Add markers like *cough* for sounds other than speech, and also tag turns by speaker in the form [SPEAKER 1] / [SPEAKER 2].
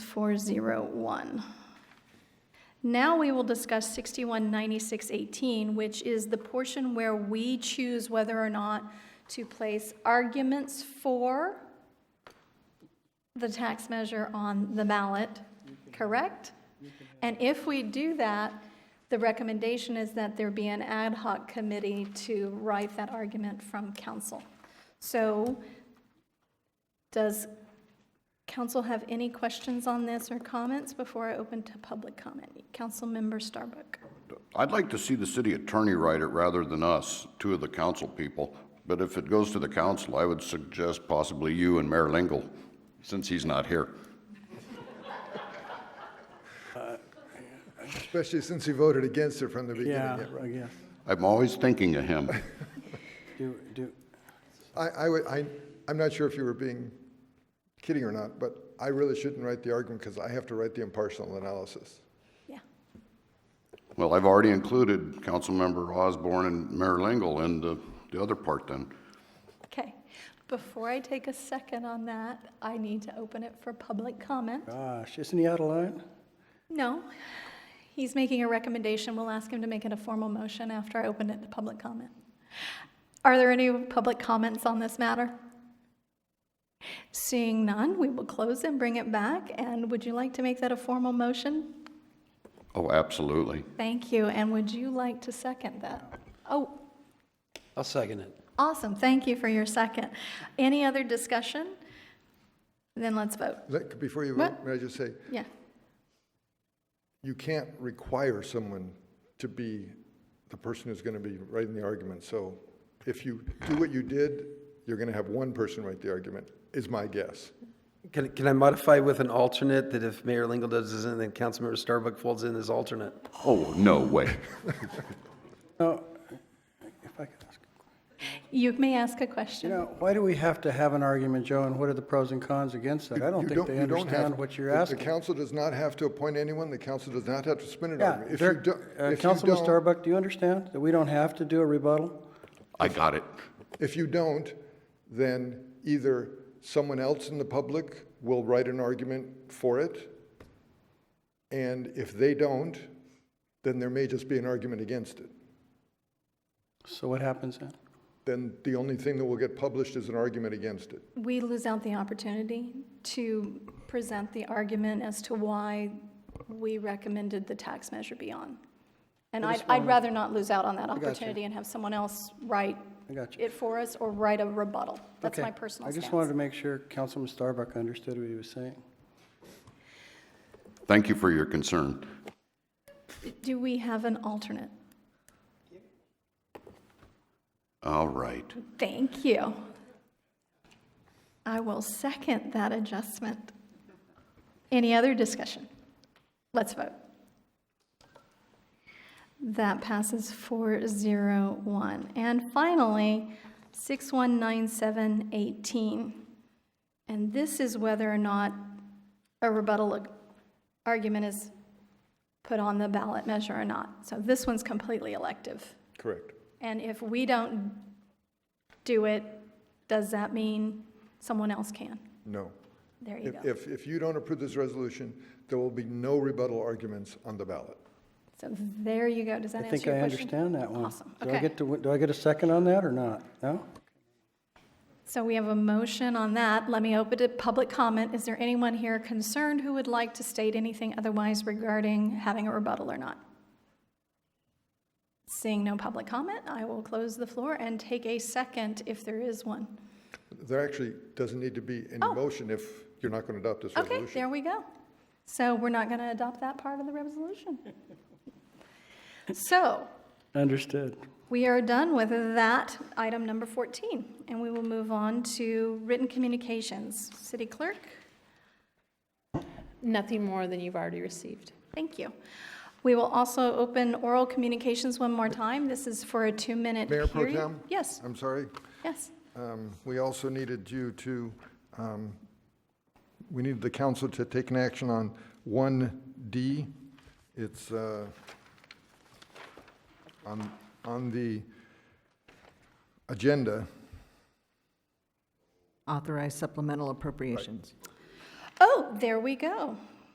[SPEAKER 1] 3401. Now we will discuss 619618, which is the portion where we choose whether or not to place arguments for the tax measure on the ballot, correct? And if we do that, the recommendation is that there be an ad hoc committee to write that argument from council. So does council have any questions on this or comments before I open to public comment? Councilmember Starbuck.
[SPEAKER 2] I'd like to see the city attorney write it rather than us, two of the council people. But if it goes to the council, I would suggest possibly you and Mayor Lingle, since he's not here.
[SPEAKER 3] Especially since you voted against it from the beginning.
[SPEAKER 4] Yeah,
[SPEAKER 3] yeah,
[SPEAKER 4] I
[SPEAKER 3] right.
[SPEAKER 4] guess.
[SPEAKER 2] I'm always thinking of him.
[SPEAKER 4] Do, do,
[SPEAKER 3] I, I would, I, I'm not sure if you were being kidding or not, but I really shouldn't write the argument because I have to write the impartial analysis.
[SPEAKER 1] Yeah.
[SPEAKER 2] Well, I've already included Councilmember Osborne and Mayor Lingle in the, the other part then.
[SPEAKER 1] Okay. Before I take a second on that, I need to open it for public comment.
[SPEAKER 4] gosh, isn't he out of line?
[SPEAKER 1] No, he's making a recommendation. We'll ask him to make it a formal motion after I open it to public comment. Are there any public comments on this matter? Seeing none, we will close and bring it back. And would you like to make that a formal motion?
[SPEAKER 2] Oh, absolutely.
[SPEAKER 1] Thank you. And would you like to second that? Oh,
[SPEAKER 5] I'll second it.
[SPEAKER 1] awesome. Thank you for your second. Any other discussion? Then let's vote.
[SPEAKER 3] Let- Before you vote,
[SPEAKER 1] What?
[SPEAKER 3] may I just say,
[SPEAKER 1] Yeah.
[SPEAKER 3] you can't require someone to be the person who's going to be writing the argument. So if you do what you did, you're going to have one person write the argument, is my guess.
[SPEAKER 5] Can, can I modify with an alternate that if Mayor Lingle does this and then Councilmember Starbuck folds in as alternate?
[SPEAKER 2] Oh, no way.
[SPEAKER 4] No, if I could ask,
[SPEAKER 1] You may ask a
[SPEAKER 4] you
[SPEAKER 1] question.
[SPEAKER 4] know, why do we have to have an argument, Joe, and what are the pros and cons against that? I
[SPEAKER 3] You
[SPEAKER 4] don't think
[SPEAKER 3] you
[SPEAKER 4] they
[SPEAKER 3] don't have-
[SPEAKER 4] understand what you're
[SPEAKER 3] the-
[SPEAKER 4] asking.
[SPEAKER 3] The council does not have to appoint anyone, the council does not have to spin an
[SPEAKER 4] Yeah,
[SPEAKER 3] argument. If you
[SPEAKER 4] Dirk-
[SPEAKER 3] don't,
[SPEAKER 4] uh,
[SPEAKER 3] if you
[SPEAKER 4] Councilman
[SPEAKER 3] don't-
[SPEAKER 4] Starbuck, do you understand that we don't have to do a rebuttal?
[SPEAKER 2] I got it.
[SPEAKER 3] If you don't, then either someone else in the public will write an argument for it, and if they don't, then there may just be an argument against it.
[SPEAKER 4] So what happens then?
[SPEAKER 3] Then the only thing that will get published is an argument against it.
[SPEAKER 1] we lose out the opportunity to present the argument as to why we recommended the tax measure be on. And I'd, I'd rather not lose out on that
[SPEAKER 4] you.
[SPEAKER 1] opportunity and have someone else write
[SPEAKER 4] I got you.
[SPEAKER 1] it for us or write a rebuttal. That's
[SPEAKER 4] Okay.
[SPEAKER 1] my personal
[SPEAKER 4] I just wanted
[SPEAKER 1] stance.
[SPEAKER 4] to make sure Councilman Starbuck understood what he was saying.
[SPEAKER 2] Thank you for your concern.
[SPEAKER 1] Do we have an alternate?
[SPEAKER 2] All right.
[SPEAKER 1] Thank you. I will second that adjustment. Any other discussion? Let's vote. That passes 401. And finally, 619718. And this is whether or not a rebuttal ag- argument is put on the ballot measure or not. So this one's completely elective.
[SPEAKER 3] Correct.
[SPEAKER 1] And if we don't do it, does that mean someone else can?
[SPEAKER 3] No.
[SPEAKER 1] There you
[SPEAKER 3] If,
[SPEAKER 1] go.
[SPEAKER 3] if, if you don't approve this resolution, there will be no rebuttal arguments on the ballot.
[SPEAKER 1] So there you go. Does that
[SPEAKER 4] I
[SPEAKER 1] answer
[SPEAKER 4] think
[SPEAKER 1] your
[SPEAKER 4] I
[SPEAKER 1] question?
[SPEAKER 4] understand that one.
[SPEAKER 1] Awesome.
[SPEAKER 4] Do I
[SPEAKER 1] Okay.
[SPEAKER 4] get to, do I get a second on that or not? No?
[SPEAKER 1] So we have a motion on that. Let me open to public comment. Is there anyone here concerned who would like to state anything otherwise regarding having a rebuttal or not? Seeing no public comment, I will close the floor and take a second if there is one.
[SPEAKER 3] There actually doesn't need to be any
[SPEAKER 1] Oh.
[SPEAKER 3] motion if you're not going to adopt this
[SPEAKER 1] Okay,
[SPEAKER 3] resolution.
[SPEAKER 1] there we go. So we're not going to adopt that part of the
[SPEAKER 3] *laughs*
[SPEAKER 1] resolution. So
[SPEAKER 4] Understood.
[SPEAKER 1] We are done with that, item number 14, and we will move on to written communications. City Clerk,
[SPEAKER 6] Nothing more than you've already received.
[SPEAKER 1] thank you. We will also open oral communications one more time. This is for a two-minute
[SPEAKER 3] Mayor
[SPEAKER 1] period.
[SPEAKER 3] Pro Tem?
[SPEAKER 1] Yes,
[SPEAKER 3] I'm sorry.
[SPEAKER 1] yes.
[SPEAKER 3] Um, We also needed you to, um, we needed the council to take an action on 1D. It's uh, on, on the agenda.
[SPEAKER 7] Authorize supplemental appropriations.
[SPEAKER 1] Oh, there we go.